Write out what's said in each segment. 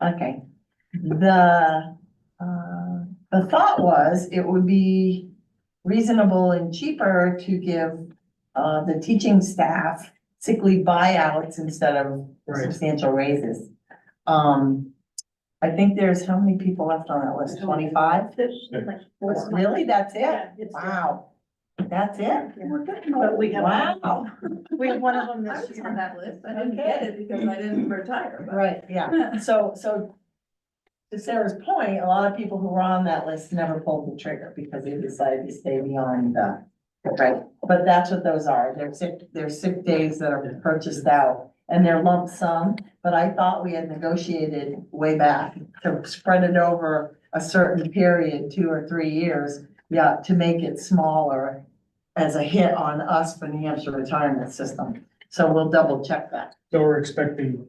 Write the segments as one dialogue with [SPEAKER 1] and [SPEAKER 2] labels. [SPEAKER 1] Okay, the, uh, the thought was it would be reasonable and cheaper to give, uh, the teaching staff sickly buyouts instead of
[SPEAKER 2] Right.
[SPEAKER 1] substantial raises. Um, I think there's, how many people left on that list? Twenty-five? Really? That's it? Wow, that's it?
[SPEAKER 2] But we have,
[SPEAKER 1] Wow,
[SPEAKER 2] we have one of them
[SPEAKER 3] I
[SPEAKER 2] this
[SPEAKER 3] was on
[SPEAKER 2] year.
[SPEAKER 3] that list. I didn't get it because I didn't retire. but-
[SPEAKER 1] right, yeah. So, so to Sarah's point, a lot of people who were on that list never pulled the trigger because they decided to stay beyond the, right? But that's what those are. They're sick, they're sick days that are purchased out and they're lump sum. But I thought we had negotiated way back to spread it over a certain period, two or three years, yeah, to make it smaller as a hit on us for New Hampshire retirement system. So we'll double check that.
[SPEAKER 2] So we're expecting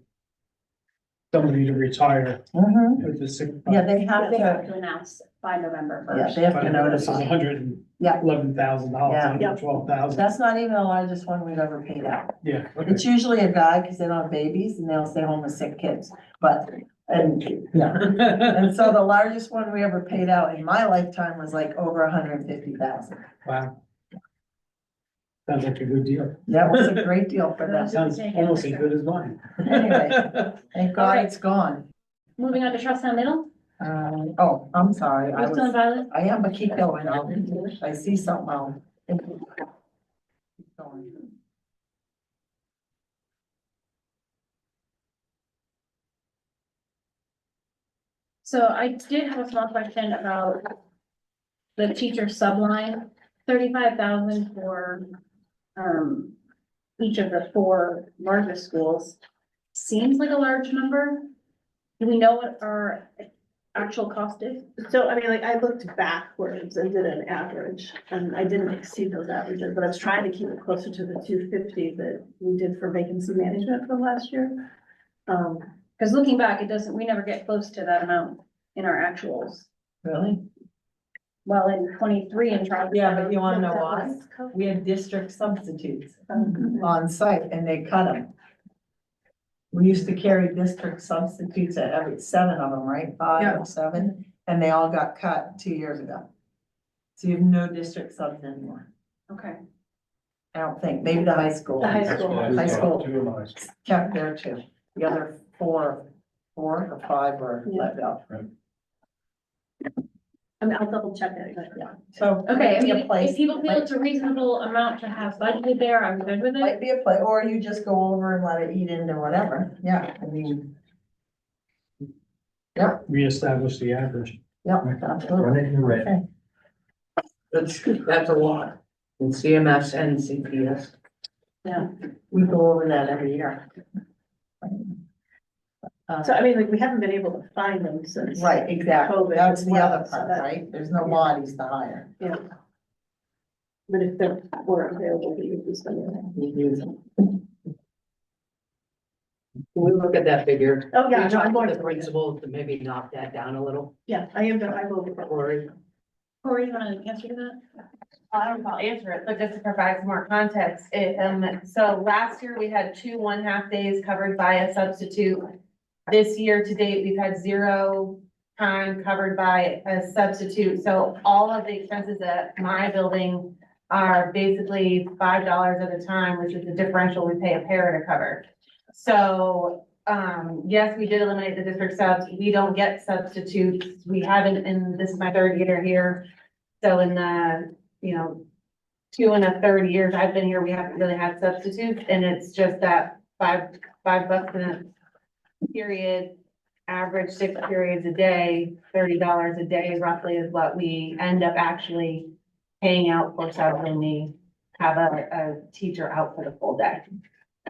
[SPEAKER 2] somebody to retire
[SPEAKER 1] Mhm.
[SPEAKER 2] with the sick.
[SPEAKER 1] Yeah, they have
[SPEAKER 4] Mm-hmm. They
[SPEAKER 1] to.
[SPEAKER 4] have to announce by November
[SPEAKER 1] Yeah,
[SPEAKER 4] first.
[SPEAKER 1] they have to
[SPEAKER 2] This is
[SPEAKER 1] notify.
[SPEAKER 2] hundred and eleven thousand dollars,
[SPEAKER 1] Yeah.
[SPEAKER 2] hundred and twelve thousand,
[SPEAKER 1] That's not even the largest one we've ever paid out.
[SPEAKER 2] yeah. okay.
[SPEAKER 1] It's usually a guy because they don't have babies and they'll stay home with sick kids, but, and, yeah. And so the largest one we ever paid out in my lifetime was like over hundred and fifty thousand.
[SPEAKER 2] Wow. Sounds like a good deal.
[SPEAKER 1] That was a great deal for them.
[SPEAKER 2] Sounds almost as good as mine.
[SPEAKER 1] Anyway. Thank God it's gone.
[SPEAKER 5] Moving on to Charlestown Middle,
[SPEAKER 1] Um, oh, I'm sorry. I
[SPEAKER 5] are you still
[SPEAKER 1] was,
[SPEAKER 5] involved?
[SPEAKER 1] I am, but keep going. I'll, if I see something, I'll. Keep going.
[SPEAKER 5] So I did have a small question about the teacher subline, thirty-five thousand for, um, each of the four largest schools. Seems like a large number. Do we know what our actual cost is?
[SPEAKER 3] So, I mean, like, I looked backwards and did an average, and I didn't exceed those averages, but I was trying to keep it closer to the two fifty that we did for vacancy management for last year. Um,
[SPEAKER 5] Because looking back, it doesn't, we never get close to that amount in our actuals.
[SPEAKER 1] Really?
[SPEAKER 5] Well, in twenty-three in Charlestown.
[SPEAKER 1] Yeah, but you wanna know
[SPEAKER 5] that
[SPEAKER 1] why?
[SPEAKER 5] was COVID.
[SPEAKER 1] We had district substitutes.
[SPEAKER 3] um,
[SPEAKER 5] Mm-hmm.
[SPEAKER 1] on site and they cut them. We used to carry district substitutes at every, seven of them, right? Five
[SPEAKER 5] Yeah.
[SPEAKER 1] or seven, and they all got cut two years ago. So you have no district subs anymore.
[SPEAKER 5] Okay,
[SPEAKER 1] I don't think, maybe the high school
[SPEAKER 3] The high
[SPEAKER 6] That's
[SPEAKER 3] school.
[SPEAKER 6] what I
[SPEAKER 1] High
[SPEAKER 6] thought,
[SPEAKER 1] school.
[SPEAKER 6] too, when I said
[SPEAKER 1] kept there too. The other four, four or five were let go.
[SPEAKER 3] I mean, I'll double check it, but yeah.
[SPEAKER 1] So.
[SPEAKER 5] okay, I
[SPEAKER 1] might be a
[SPEAKER 5] mean, if
[SPEAKER 1] place-
[SPEAKER 5] people feel
[SPEAKER 1] might-
[SPEAKER 5] it's a reasonable amount to have budgeted there, I'm good with it.
[SPEAKER 1] Might be a play, or you just go over and let it eat into whatever. Yeah, I mean,
[SPEAKER 2] Reestablish the average.
[SPEAKER 1] yeah, absolutely.
[SPEAKER 6] Run it in red.
[SPEAKER 1] Okay.
[SPEAKER 7] That's, that's a lot in CMS and CPS.
[SPEAKER 1] We go over that every year.
[SPEAKER 3] So, I mean, like, we haven't been able to find them since.
[SPEAKER 1] Right, exactly.
[SPEAKER 3] COVID
[SPEAKER 1] That's
[SPEAKER 3] as
[SPEAKER 1] the
[SPEAKER 3] well,
[SPEAKER 1] other
[SPEAKER 3] so
[SPEAKER 1] part,
[SPEAKER 3] that-
[SPEAKER 1] right? There's no
[SPEAKER 3] yeah.
[SPEAKER 1] bodies to hire.
[SPEAKER 3] But if they were available, we would be spending them.
[SPEAKER 7] Can we look at that figure?
[SPEAKER 3] Oh, yeah,
[SPEAKER 7] We
[SPEAKER 3] no, I'm
[SPEAKER 7] talked
[SPEAKER 3] going
[SPEAKER 7] to
[SPEAKER 3] to
[SPEAKER 7] the principal to maybe knock that down a little,
[SPEAKER 3] Yeah, I am, gonna- I will. look at it.
[SPEAKER 7] Cory.
[SPEAKER 5] Corey, you wanna answer to that?
[SPEAKER 8] I don't know if I'll answer it, but just to provide some more context, it, um, so last year we had two one-half days covered by a substitute. This year to date, we've had zero time covered by a substitute, so all of the expenses at my building are basically five dollars at a time, which is the differential we pay a para to cover. So, um, yes, we did eliminate the district subs, we don't get substitutes, we haven't, and this is my third year here. So in the you know, two and a third years I've been here, we haven't really had substitutes, and it's just that five, five bucks in a period, average six periods a day, thirty dollars a day roughly is what we end up actually paying out for sub when we have a, a teacher out for the full day.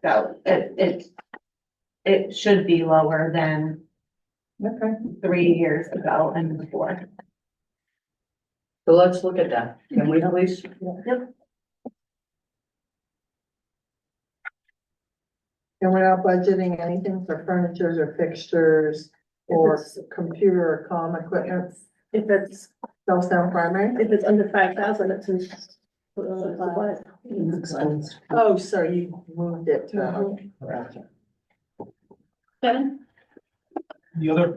[SPEAKER 8] So it, it, it should be lower than
[SPEAKER 1] Okay.
[SPEAKER 8] three years ago and before.
[SPEAKER 7] So let's look at that, can we please?
[SPEAKER 1] And we're not budgeting anything for furnitures or fixtures or computer or comm equipment,
[SPEAKER 3] If it's,
[SPEAKER 1] Charlestown primary?
[SPEAKER 3] if it's under five thousand, it's in. supplies.
[SPEAKER 1] Oh, sorry, you Mm-hmm. moved it to.
[SPEAKER 5] Kevin?
[SPEAKER 2] The other